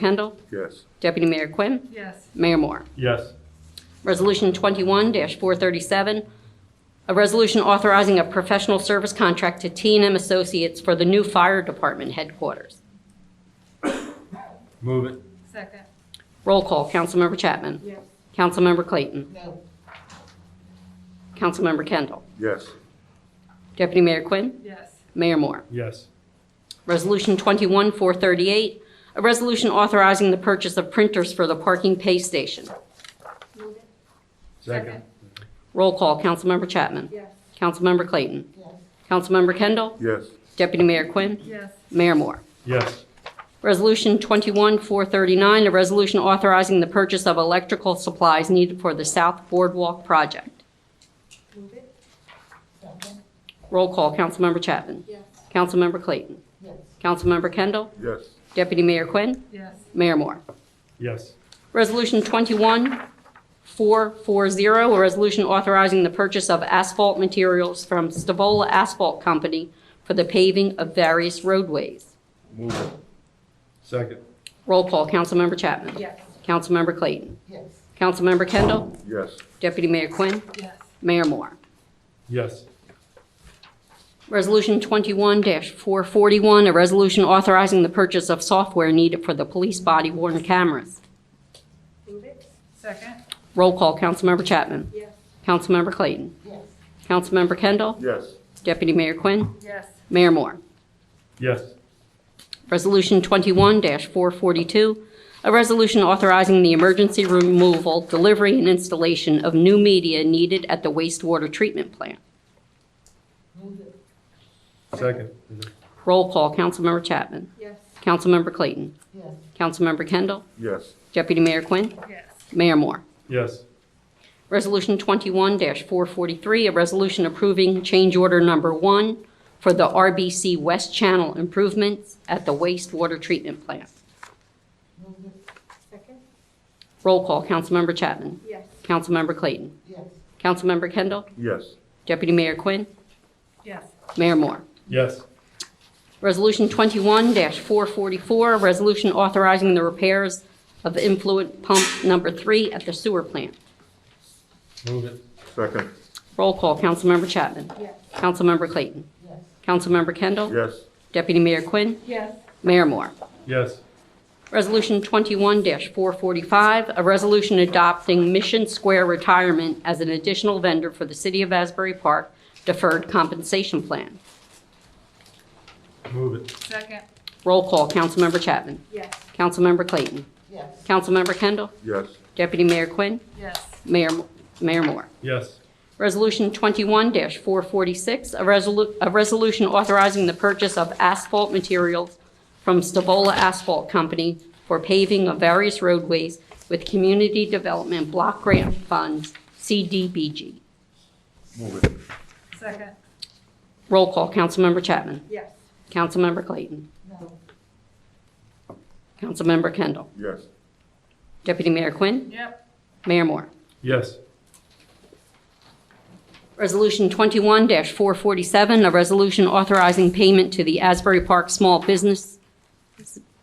Kendall, Yes. Deputy Mayor Quinn, Yes. Mayor Moore. Yes. Resolution 21-437, a resolution authorizing a professional service contract to t and m Associates for the new fire department headquarters. Move it. Second. Roll call, Councilmember Chapman. Yes. Councilmember Clayton. No. Councilmember Kendall. Yes. Deputy Mayor Quinn, Yes. Mayor Moore. Yes. Resolution 21-438, a resolution authorizing the purchase of printers for the parking pay station. Move it. Second. Roll call, Councilmember Chapman. Yes. Councilmember Clayton. Yes. Councilmember Kendall. Yes. Deputy Mayor Quinn. Yes. Mayor Moore. Yes. Resolution 21-439, a resolution authorizing the purchase of electrical supplies needed for the South Boardwalk project. Move it. Second. Roll call, Councilmember Chapman. Yes. Councilmember Clayton. Yes. Councilmember Kendall. Yes. Deputy Mayor Quinn. Yes. Mayor Moore. Yes. Resolution 21-440, a resolution authorizing the purchase of asphalt materials from Stavola Asphalt Company for the paving of various roadways. Move it. Second. Roll call, Councilmember Chapman. Yes. Councilmember Clayton. Yes. Councilmember Kendall. Yes. Deputy Mayor Quinn. Yes. Mayor Moore. Yes. Resolution 21-441, a resolution authorizing the purchase of software needed for the police body worn cameras. Move it. Second. Roll call, Councilmember Chapman. Yes. Councilmember Clayton. Yes. Councilmember Kendall. Yes. Deputy Mayor Quinn. Yes. Mayor Moore. Yes. Resolution 21-442, a resolution authorizing the emergency removal, delivery, and installation of new media needed at the wastewater treatment plant. Move it. Second. Roll call, Councilmember Chapman. Yes. Councilmember Clayton. Yes. Councilmember Kendall. Yes. Deputy Mayor Quinn. Yes. Mayor Moore. Yes. Resolution 21-443, a resolution approving change order number one for the RBC West Channel improvements at the wastewater treatment plant. Move it. Second. Roll call, Councilmember Chapman. Yes. Councilmember Clayton. Yes. Councilmember Kendall. Yes. Deputy Mayor Quinn. Yes. Mayor Moore. Yes. Resolution 21-444, a resolution authorizing the repairs of influent pump number three at the sewer plant. Move it. Second. Roll call, Councilmember Chapman. Yes. Councilmember Clayton. Yes. Councilmember Kendall. Yes. Deputy Mayor Quinn. Yes. Mayor Moore. Yes. Resolution 21-445, a resolution adopting Mission Square Retirement as an additional vendor for the City of Asbury Park Deferred Compensation Plan. Move it. Second. Roll call, Councilmember Chapman. Yes. Councilmember Clayton. Yes. Councilmember Kendall. Yes. Deputy Mayor Quinn. Yes. Mayor Mayor Moore. Yes. Resolution 21-446, a resolu- a resolution authorizing the purchase of asphalt materials from Stavola Asphalt Company for paving of various roadways with Community Development Block Grant Funds, CDBG. Move it. Second. Roll call, Councilmember Chapman. Yes. Councilmember Clayton. No. Councilmember Kendall. Yes. Deputy Mayor Quinn. Yep. Mayor Moore. Yes. Resolution 21-447, a resolution authorizing payment to the Asbury Park Small Business,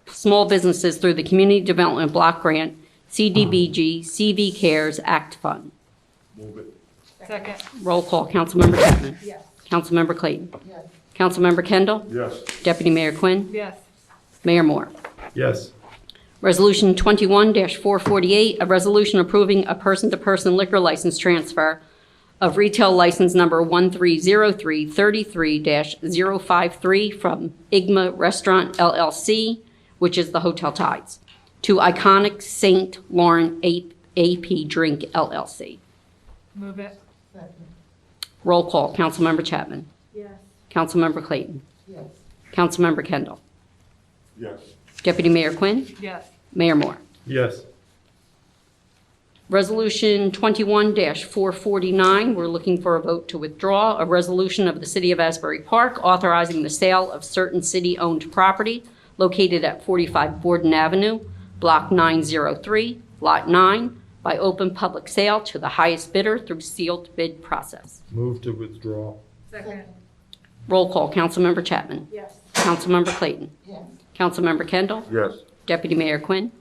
Small Businesses through the Community Development Block Grant, CDBG, CV Cares Act Fund. Move it. Second. Roll call, Councilmember Chapman. Yes. Councilmember Clayton. Yes. Councilmember Kendall. Yes. Deputy Mayor Quinn. Yes. Mayor Moore. Yes. Resolution 21-448, a resolution approving a person-to-person liquor license transfer of retail license number 130333-053 from Igma Restaurant LLC, which is the Hotel Tides, to Iconic St. Lauren A- AP Drink LLC. Move it. Second. Roll call, Councilmember Chapman. Yes. Councilmember Clayton. Yes. Councilmember Kendall. Yes. Deputy Mayor Quinn. Yes. Mayor Moore. Yes. Resolution 21-449, we're looking for a vote to withdraw, a resolution of the City of Asbury Park authorizing the sale of certain city-owned property located at 45 Borden Avenue, Block 903, Lot 9, by open public sale to the highest bidder through sealed bid process. Move to withdraw. Second. Roll call, Councilmember Chapman. Yes. Councilmember Clayton. Yes. Councilmember Kendall. Yes. Deputy Mayor Quinn.